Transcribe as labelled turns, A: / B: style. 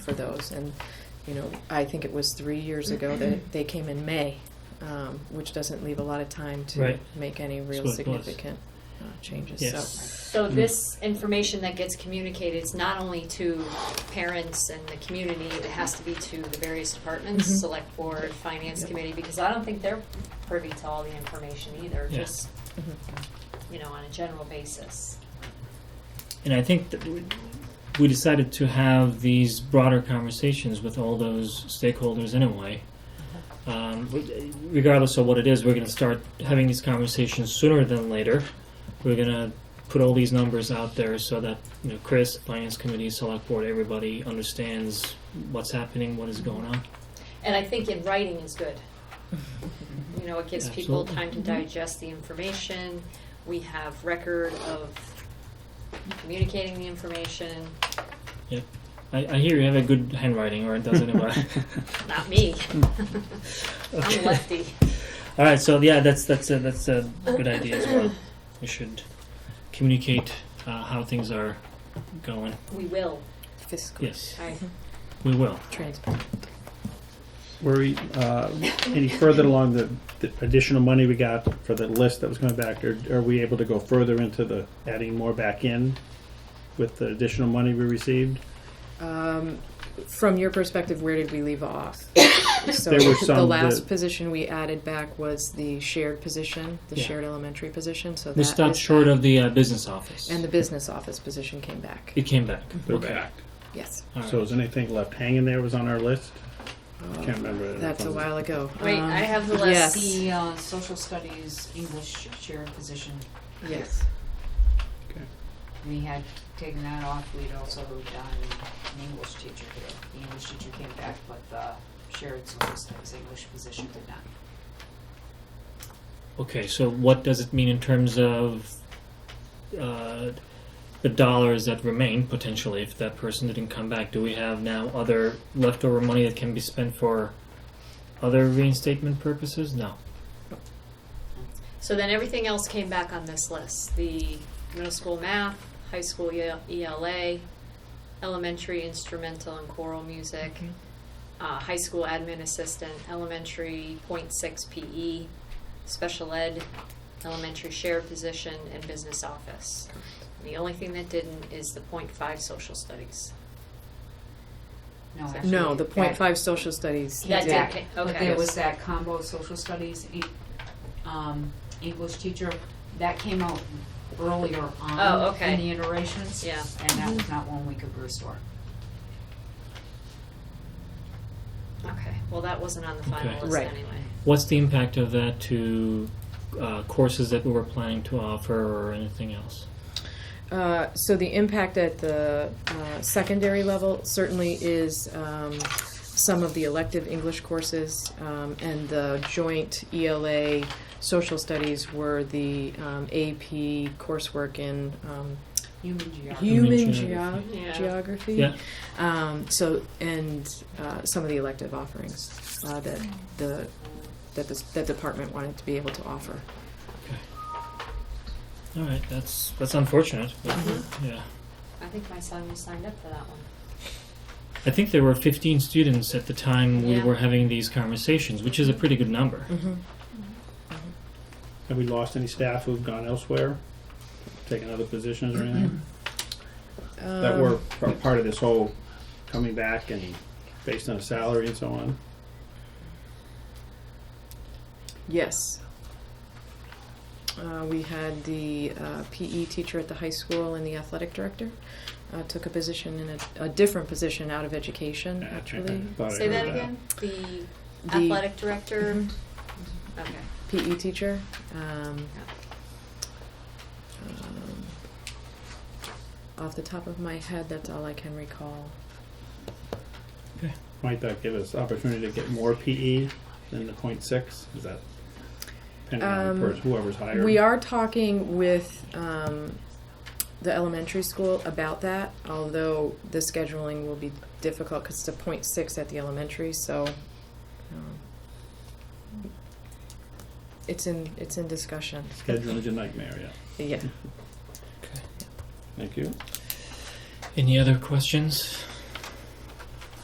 A: for those. And, you know, I think it was three years ago
B: Mm-hmm.
A: that they came in May, um, which doesn't leave a lot of time to
B: Right.
A: make any real
B: what it was.
A: significant uh, changes. So,
B: Yes. Mm.
C: So this information that gets communicated is not only to parents and the community, it has to be to the various departments,
B: Mm-hmm.
A: Mhm.
C: select board, finance committee, because I don't think they're privy to all the information either,
B: Yeah.
C: just,
A: Mhm.
C: you know, on a general basis.
B: And I think that we- we decided to have these broader conversations with all those stakeholders anyway. Um, re- regardless of what it is, we're going to start having these conversations sooner than later. We're going to put all these numbers out there so that you know Chris, Finance Committee, Select Board, everybody understands what's happening, what is going on.
C: And I think in writing is good. You know, it gives people
B: Absolutely. Mm-hmm.
C: time to digest the information. We have record of communicating the information,
B: I, I hear you have a good handwriting, or it doesn't matter.
C: not me. I'm lefty.
B: All right, so yeah, that's that's a, that's a good idea as well. We should communicate uh, how things are going.
C: We will.
A: fiscal
B: Yes,
C: I
B: we will.
A: transparency.
D: Were we uh, any further along the, the additional money we got for the list that was coming back? Or are we able to go further into the adding more back in with the additional money we received?
A: Um, from your perspective, where did we leave off? So
D: There were
A: the
D: some
A: last
D: that-
A: position we added back was the shared position, the
B: Yeah.
A: shared elementary position. So
B: We
A: that
B: stopped
A: is-
B: short of the uh, business office.
A: and the business office position came back.
B: it came back.
D: They're
B: okay.
D: back.
A: Yes,
B: All right.
D: So is anything left hanging there was on our list? I can't remember. it.
A: that's a while ago.
C: Wait,
A: Um,
C: I have the
A: yes.
C: list.
E: The uh, social studies English chair position,
A: Yes.
E: we had taken that off, we'd also done an English teacher here. The English teacher came back, but the shared social studies English position did not.
B: okay, so what does it mean in terms of uh, the dollars that remain potentially if that person didn't come back? Do we have now other leftover money that can be spent for other reinstatement purposes? No.
C: So then everything else came back on this list. The middle school math, high school E- ELA, elementary instrumental and choral music,
A: Mhm.
C: uh, high school admin assistant, elementary .6 PE, E, special ed, elementary share position, and business office. The only thing that didn't is the .5 social studies.
E: No,
C: No,
E: actually.
A: No, the
E: that-
A: point five social studies.
C: That
A: did.
C: did.
E: But
C: Okay.
E: there was that combo social studies, E- um, English teacher, that came out earlier on
C: Oh, okay.
E: in the iterations.
C: Yeah.
E: And that was not one we could restore.
C: Okay, well, that wasn't on the final
B: Okay.
C: list
A: Right.
C: anyway.
B: What's the impact of that to uh, courses that we were planning to offer or anything else?
A: Uh, so the impact at the uh, secondary level certainly is um, some of the elective English courses um, and the joint ELA social studies were the um, AP coursework in um,
E: Human geography.
A: human
B: Human
A: geo-
B: geography.
C: Yeah.
A: geography.
B: Yeah.
A: Um, so and uh, some of the elective offerings uh, that the that the that department wanted to be able to offer.
B: All right, that's that's unfortunate. But, Yeah,
C: I think my son was signed up for that one.
B: I think there were 15 students at the time we
C: Yeah.
B: were having these conversations, which is a pretty good number.
A: Mm-hmm.
D: Have we lost any staff who've gone elsewhere, taken other positions or anything?
C: Uh,
D: That were p- part of this whole coming back and based on salary and so on?
A: Yes. Uh, we had the uh, PE teacher at the high school and the athletic director uh, took a position in a, a different position out of education,
D: Yeah, I- I
A: actually.
D: thought I
C: Say that
D: heard
C: again? The
A: The-
C: athletic director? Okay.
A: PE teacher. Um, um, off the top of my head, that's all I can recall.
D: Might that give us opportunity to get more PE than the point six? Is that depending on the
A: Um,
D: person, whoever's hired?
A: We are talking with um, the elementary school about that, although the scheduling will be difficult because it's a point six at the elementary, so. um, It's in, it's in discussion.
D: Scheduling is a nightmare, yeah.
A: Yeah.
B: Okay.
D: Thank you.
B: Any other questions?